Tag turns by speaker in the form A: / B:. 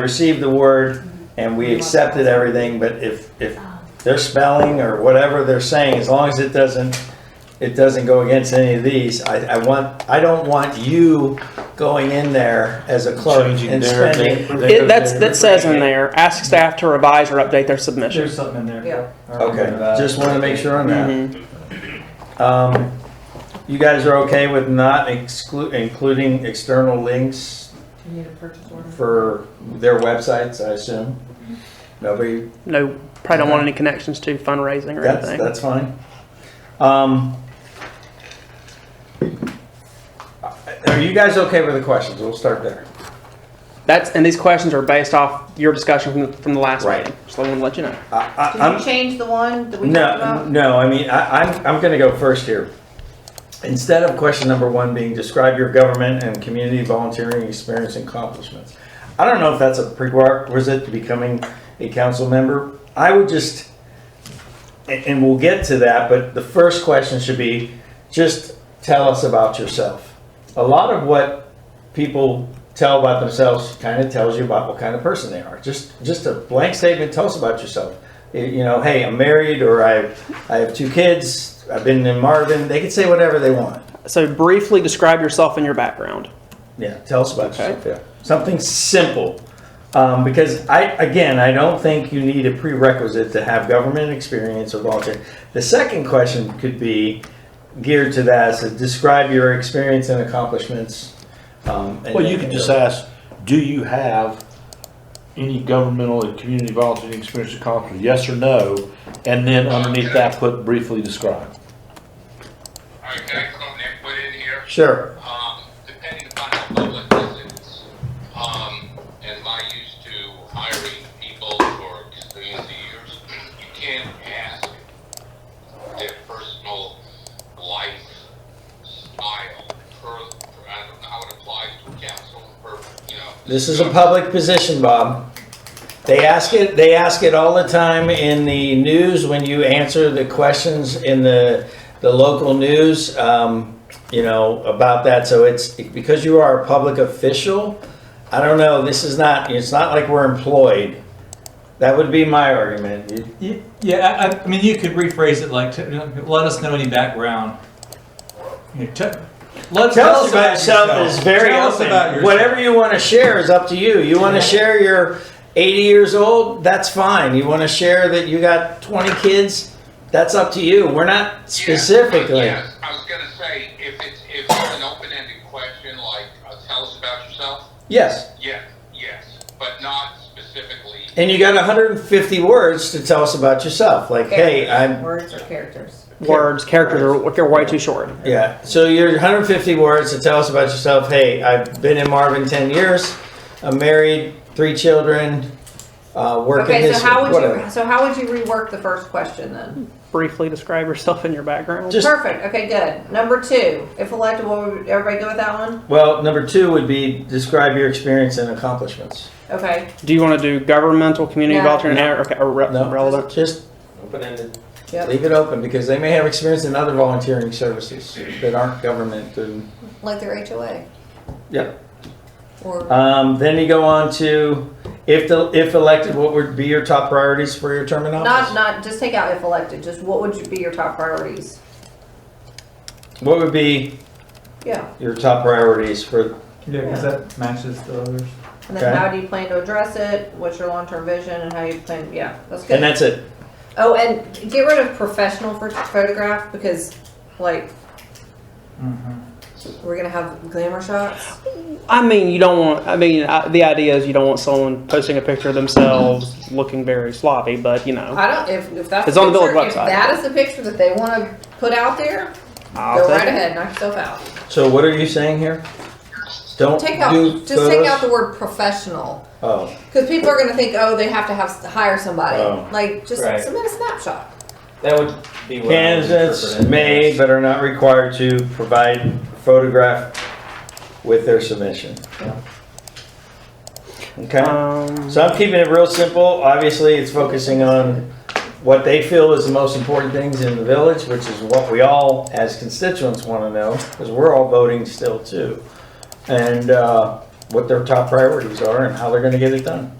A: received the word and we accepted everything, but if, if their spelling or whatever they're saying, as long as it doesn't, it doesn't go against any of these, I, I want, I don't want you going in there as a clerk
B: Changing
A: and
B: their-
A: spending.
B: they-
C: It, that's, that says in there, ask staff to revise or update their submission.
D: There's something in there.
E: Yeah.
D: I remember
A: Okay,
D: that.
A: just want to make sure on that.
C: Mhm.
A: Um, you guys are okay with not exclu, including external links
E: Do you need a purchase order?
A: for their websites, I assume? Nobody
E: Mm-hmm.
C: No, probably don't want any connections to fundraising or
A: That's,
C: anything.
A: that's fine. Um, are you guys okay with the questions? We'll start there.
C: That's, and these questions are based off your discussion from, the- from the last
A: Right.
C: meeting. Just want to let you know.
A: I, I,
E: Did you
A: I'm,
E: change the one that we talked
A: no,
E: about?
A: no, I mean, I, I'm, I'm gonna go first here. Instead of question number one being describe your government and community volunteering experience and accomplishments. I don't know if that's a prerequisite to becoming a council member. I would just, and, and we'll get to that, but the first question should be, just tell us about yourself. A lot of what people tell about themselves kind of tells you about what kind of person they are. Just, just a blank statement, tell us about yourself. Y- You know, hey, I'm married, or I, I have two kids, I've been in Marvin, they can say whatever they want.
C: So briefly describe yourself and your background.
A: Yeah, tell us about
C: Okay.
A: yourself. Yeah. Something simple. Um, because I, again, I don't think you need a prerequisite to have government experience or volunteer. The second question could be geared to that, so describe your experience and accomplishments. Um, and-
B: Well, you could just ask, do you have any governmental and community volunteering experience or accomplishment? Yes or no? And then underneath that, put briefly describe.
F: All right, can I throw an input in here?
A: Sure.
F: Um, depending upon how public this is, um, and my used to hiring people for experience years, you can't ask their personal life style per, per- I don't know how it applies to council, per, you know.
A: This is a public position, Bob. They ask it, they ask it all the time in the news when you answer the questions in the, the local news, um, you know, about that. So it's, because you are a public official, I don't know, this is not, it's not like we're employed. That would be my argument. You-
D: Y- Yeah, I, I- I mean, you could rephrase it like, t- let us know any background. You know, t- let-
A: Tell us about yourself is very
D: Tell us about
A: open.
D: yourself.
A: Whatever you want to share is up to you. You want to share you're 80 years old, that's fine. You want to share that you got 20 kids, that's up to you. We're not
F: Yeah,
A: specifically.
F: Yes, I was gonna say, if it's, if it's an open-ended question, like, uh, tell us about yourself,
A: Yes.
F: yeah, yes, but not specifically.
A: And you got 150 words to tell us about yourself. Like, hey, I'm
E: Words or characters?
C: Words, characters are, are way too short.
A: Yeah. So you're 150 words to tell us about yourself. Hey, I've been in Marvin 10 years. I'm married, three children, uh, working
E: Okay,
A: this
E: so how would
A: whatever.
E: you, so how would you rework the first question then?
C: Briefly describe yourself and your background.
A: Just
E: Perfect, okay, good. Number two, if elected, what would, everybody go with that one?
A: Well, number two would be describe your experience and accomplishments.
E: Okay,
C: Do you want to do governmental, community
E: No.
C: volunteer, and- okay, or re-
A: No,
C: relevant?
A: Just open-ended.
E: yep.
A: Leave it open because they may have experience in other volunteering services that aren't government. and-
E: Like their HOA?
A: Yeah.
E: Or,
A: Um, then you go on to if the if elected, what would be your top priorities for your term in office?
E: not, not, just take out if elected, just what would you be your top priorities?
A: What would be
E: Yeah,
A: your top priorities for?
D: Yeah, because that matches the others.
E: and
A: Okay.
E: then how do you plan to address it? What's your long-term vision and how you plan, yeah, that's good.
A: And that's it.
E: Oh, and get rid of professional for photograph because, like,
D: Mhm.
E: we're gonna have glamour shots.
C: I mean, you don't want. I mean, I, the idea is you don't want someone posting a picture of themselves looking very sloppy, but you know,
E: I don't. If, if that's
C: Oh. It's
E: the
C: on the
E: picture,
C: village
E: If
C: website.
E: that is the picture that they want to put out there,
C: I'll
E: go
C: take
E: right
C: it.
E: ahead. Knock yourself out.
A: So what are you saying here? Don't
E: Take out.
A: do
E: Just take
A: photos?
E: out the word professional
A: Oh,
E: because people are gonna think, oh, they have to have hire somebody.
A: Oh.
E: Like, just
G: Right.
E: submit a snapshot.
G: That would be what I would
A: candidates
G: interpret it
A: may
G: as.
A: but are not required to provide photograph with their submission. Okay.
C: Um,
A: So I'm keeping it real simple. Obviously, it's focusing on what they feel is the most important things in the village, which is what we all, as constituents, want to know, because we're all voting still too. And, uh, what their top priorities are and how they're gonna get it done.